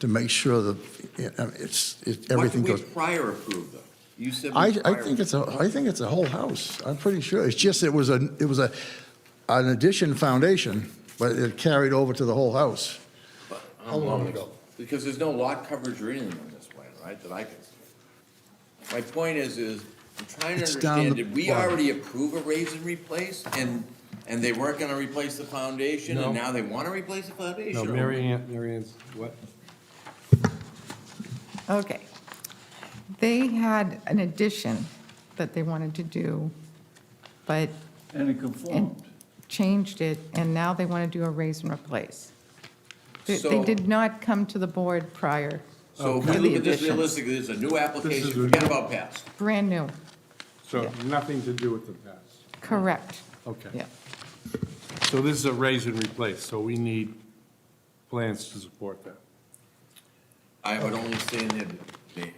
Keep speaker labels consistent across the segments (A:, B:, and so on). A: to make sure that, you know, it's, it,
B: What
A: everything
B: did
A: goes.
B: we prior approve, though? You said. we
A: I, I
B: prior-
A: think it's a, I think it's a whole house. I'm pretty sure. It's just, it was a, it was a, an addition foundation, but it carried over to the whole house.
B: How long ago? Because there's no lot coverage or anything on this plan, right, that I can see. My point is, is I'm trying to
A: It's down
B: understand,
A: the
B: did we
A: bottom.
B: already approve a raise and replace? And, and they weren't gonna replace the foundation,
C: No.
B: and now they wanna replace the
C: No,
B: foundation? or-
C: Mary Ann, Mary Ann's, what?
D: Okay. They had an addition that they wanted to do, but
E: And it conformed.
D: changed it, and now they want to do a raise and replace. They- They
B: So-
D: did not come to the board prior,
B: So if
D: Okay.
B: we look at this
D: Addition.
B: realistically, it's a new application,
C: oh, This is a-
B: forget about past.
D: brand new,
C: So nothing to do with the past.
D: correct.
C: Okay.
D: Yeah.
C: So this is a raise and replace, so we need plans to support that.
B: I would only say that, the-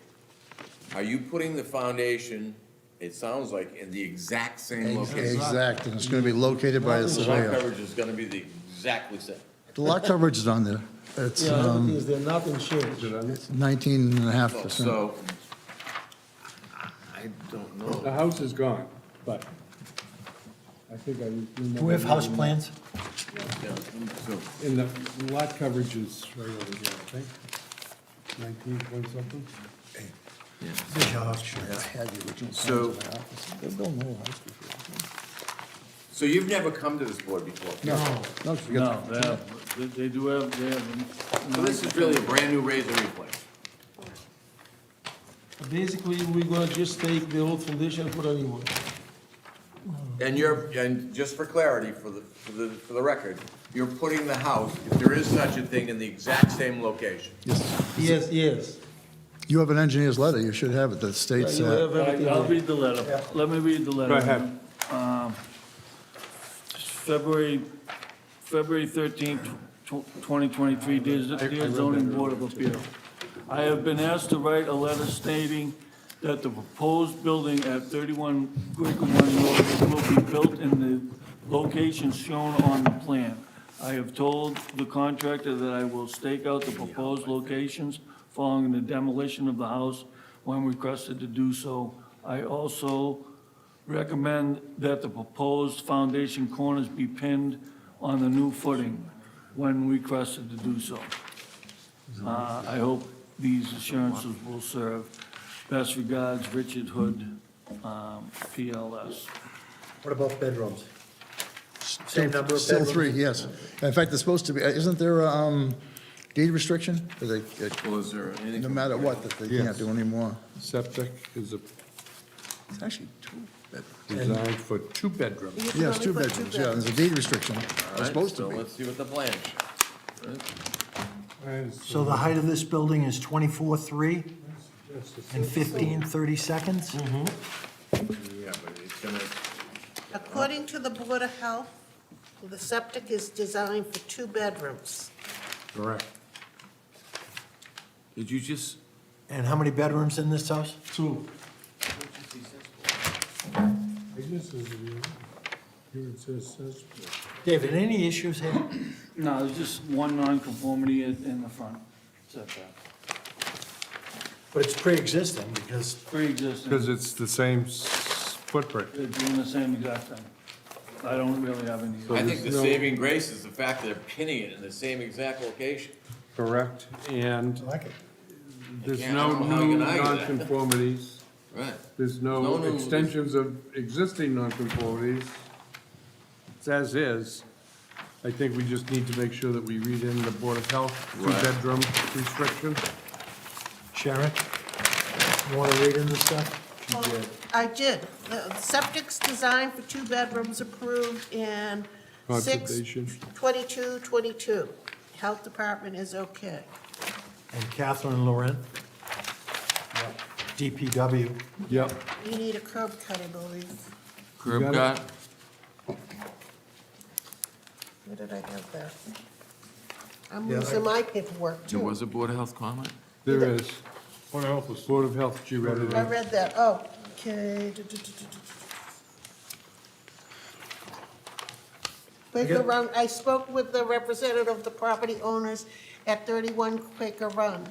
B: are you putting the foundation, it sounds like, in the exact same location?
A: Exact, and it's gonna be located by the
B: The lot
A: surveyor.
B: coverage is gonna be the exactly same.
A: The lot coverage is on there. It's
F: Yeah,
A: um,
F: everything is there, nothing changed.
C: The
A: 19 and a half percent.
B: So, I don't know.
C: house is gone, but I think I. remember-
F: Do we have house plans?
B: Oh, Yeah, so,
C: And the lot coverage is right over here, I think. Nineteen point something?
B: So- So you've never come to this board before?
A: No, no, forget
E: No,
A: that.
E: they have, they- they do have, they have.
B: So this is really a brand-new raise and replace.
F: Basically, we're gonna just take the old foundation and put a new one.
B: And you're, and just for clarity, for the, for the, for the record, you're putting the house, if there is such a thing, in the exact same location.
A: Yes.
F: Yes, yes.
A: You have an engineer's letter, you should have it, that states
F: You
A: that.
F: have everything
E: I'll
F: there.
E: read the letter. Let me read the letter.
C: Go ahead.
E: Um, February, February thirteenth, twenty twenty-three, dear dear zoning board of appeal. I have been asked to write a letter stating that the proposed building at thirty-one Quaker North will be built in the locations shown on the plan. I have told the contractor that I will stake out the proposed locations following the demolition of the house when requested to do so. I also recommend that the proposed foundation corners be pinned on the new footing when requested to do so. Uh, I hope these assurances will serve. Best regards, Richard Hood, um, PLS.
F: What about bedrooms?
A: Still-
F: number of
A: Still
F: bedrooms?
A: three, yes. In fact, it's supposed to be, uh, isn't there a um, deed restriction? That they- that
B: Well, is there anything?
A: No matter what, that they can't do anymore.
C: Septic is a-
A: It's actually two.
C: designed for two bedrooms.
A: Yes, two bedrooms, yeah, there's a deed restriction,
B: All
A: it's
B: right,
A: supposed to
B: so
A: be.
B: Let's see what the plan is.
F: So the height of this building is twenty-four, three and fifteen, thirty seconds?
B: Yeah, but it's gonna,
G: According to the Board of Health, the septic is designed for two bedrooms.
C: Correct.
B: did you just?
F: And how many bedrooms in this house?
E: Two.
C: I guess it's, here it says, says.
F: David, any issues here?
E: No, there's just one nonconformity in in the front setback,
F: But it's pre-existing because
E: pre-existing.
C: Because it's the same s- footprint.
E: They're doing the same exact thing. I don't really have any.
B: I think the
C: no-
B: saving grace is the fact that they're pinning it in the same exact location.
C: Correct, and
F: I like it.
C: there's
B: Yeah, I
C: no
B: don't know how you
C: new
B: can argue that.
C: nonconformities,
B: Right.
C: there's
B: No, no,
C: no
B: there's-
C: extensions of existing nonconformities. It's as is. I think we just need to make sure that we read in the Board of Health
B: Right.
C: two-bedroom restriction.
F: Sharon, you wanna read in this stuff?
G: Well, I did. The septic's designed for two bedrooms approved in six,
C: Conservation.
G: twenty-two, twenty-two. Health Department is okay.
F: And Catherine Laurent? DPW.
C: Yep.
G: You need a curb cut, I believe.
B: Curb
C: got
B: cut,
G: What did I have there? I'm losing my paperwork,
B: there
G: too.
B: was a Board of Health comment?
C: There is. Board of Health. Board of Health, you read it
G: I
C: in.
G: read that, oh, okay. Du- du- du- du- du- du. Wait, the wrong- I spoke with the representative of the property owners at 31 Quaker Run.